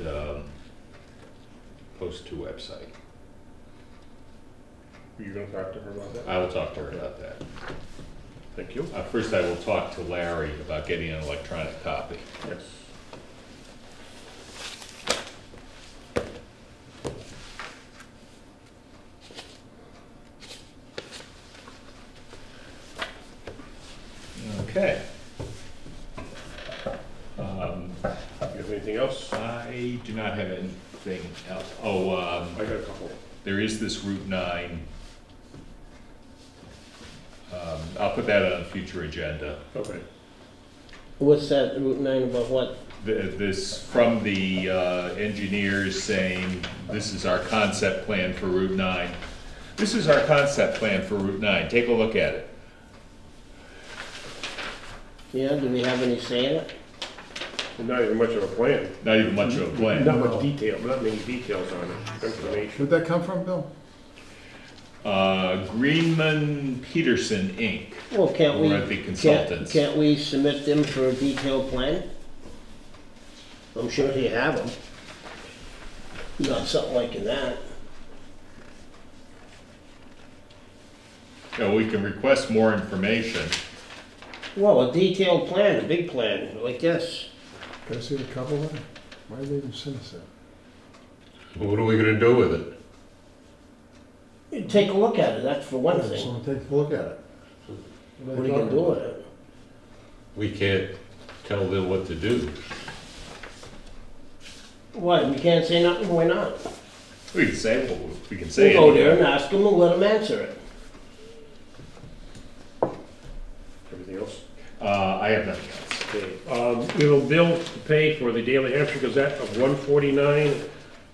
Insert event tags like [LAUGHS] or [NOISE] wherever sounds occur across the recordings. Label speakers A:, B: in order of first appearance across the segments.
A: um, post to website.
B: Are you gonna talk to her about that?
A: I will talk to her about that.
B: Thank you.
A: Uh, first, I will talk to Larry about getting an electronic copy.
B: Yes.
A: Okay. Um,
B: You have anything else?
A: I do not have anything else. Oh, um,
B: I got a couple.
A: there is this Route nine. Um, I'll put that on a future agenda.
B: Okay.
C: What's that Route 9 about what?
A: Th- This, from the uh, engineers saying, this is our concept plan for Route 9. This is our concept plan for Route 9, take a look at it.
C: Yeah, do we have any say in it?
B: Not even much of a plan.
A: Not even much of a plan.
B: Not much detail, not many details on it, information.
D: Where'd that come from, Bill?
A: Uh, Greenman Peterson, Inc.
C: Well, can't we?
A: Or the
C: can't-
A: consultants.
C: Can't we submit them for a detailed plan? I'm sure you have them. Not something like that.
A: You know, we can request more information.
C: Well, a detailed plan, a big plan, like this.
D: Can I see the cover letter? Why did they even send us that?
E: What are we gonna do with it?
C: You Take a look at it, that's for one thing.
D: Someone take a look at it.
C: What are you gonna do with it?
E: We can't tell them what to do.
C: What, we can't say nothing, why not?
A: We can say, what we- we can
C: We'll
A: say
C: go there and
A: anything.
C: ask them and let them answer it.
B: Everything else?
A: Uh, I have nothing else.
B: Okay. Um, we will bill to pay for the Daily Hampshire Gazette of one forty-nine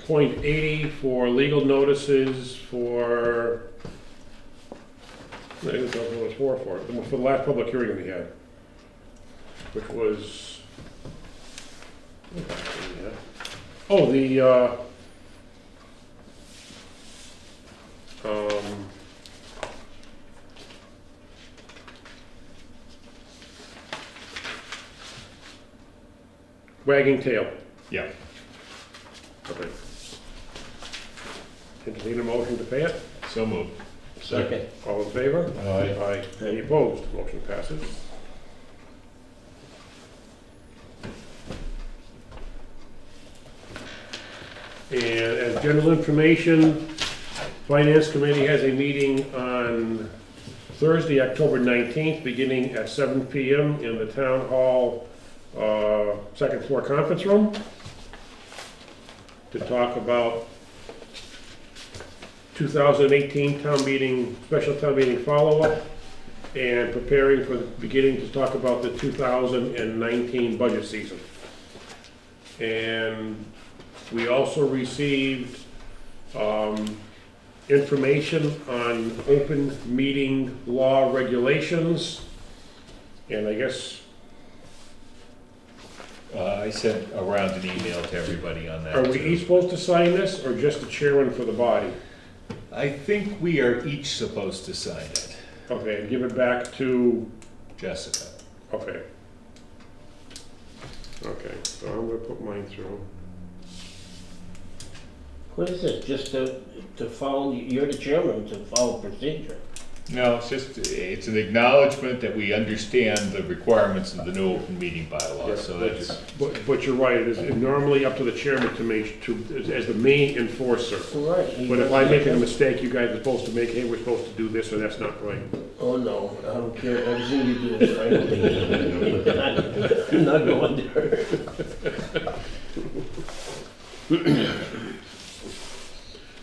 B: point eighty for legal notices for. I don't know what it was for, for, for the last public hearing we had, which was. Oh, the, uh. Um. Wagging tail.
A: Yeah,
B: Okay. Entertain a motion to pay it?
A: so moved.
C: Second.
B: All in favor?
E: Aye.
B: Aye. Any opposed? Motion passes. And as general information, Finance Committee has a meeting on Thursday, October 19th, beginning at 7 PM in the Town Hall, uh, second floor conference room, to talk about 2018 town meeting, special town meeting follow-up, and preparing for the beginning to talk about the 2019 budget season. And we also received um, information on open meeting law regulations, and I guess,
A: Uh, I sent around an email to everybody on that.
B: are we
A: too.
B: each supposed to sign this, or just the chairman for the body?
A: I think we are each supposed to sign it,
B: Okay, and give it back to
A: Jessica.
B: Okay. Okay, so I'm gonna put mine through.
C: What is this, just to, to follow, you're the chairman, to follow procedure?
A: No, it's just, it's an acknowledgement that we understand the requirements of the new open meeting bylaw, so that's,
B: But, but you're right, it is normally up to the chairman to make, to, as the main enforcer.
C: Right.
B: But if I make a mistake, you guys are supposed to make, hey, we're supposed to do this, or that's not right.
C: Oh, no, I don't care, everything you do is right. [LAUGHS] I'm not going there.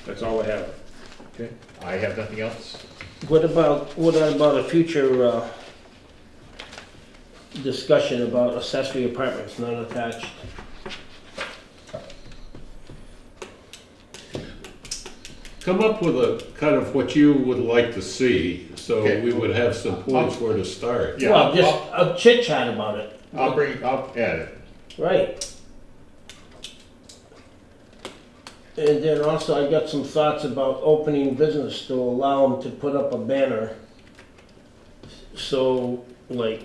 B: That's all I have.
A: I have nothing else.
C: What about, what about a future, uh, discussion about accessory apartments not attached?
E: Come up with a kind of what you would like to see, so
A: Okay.
E: we would have some points where to start.
A: Yeah,
C: Well,
A: I'll,
C: just
A: I'll-
C: a chit chat about it,
A: I'll bring, I'll add it.
C: right? And then also, I got some thoughts about opening business to allow them to put up a banner. So, like,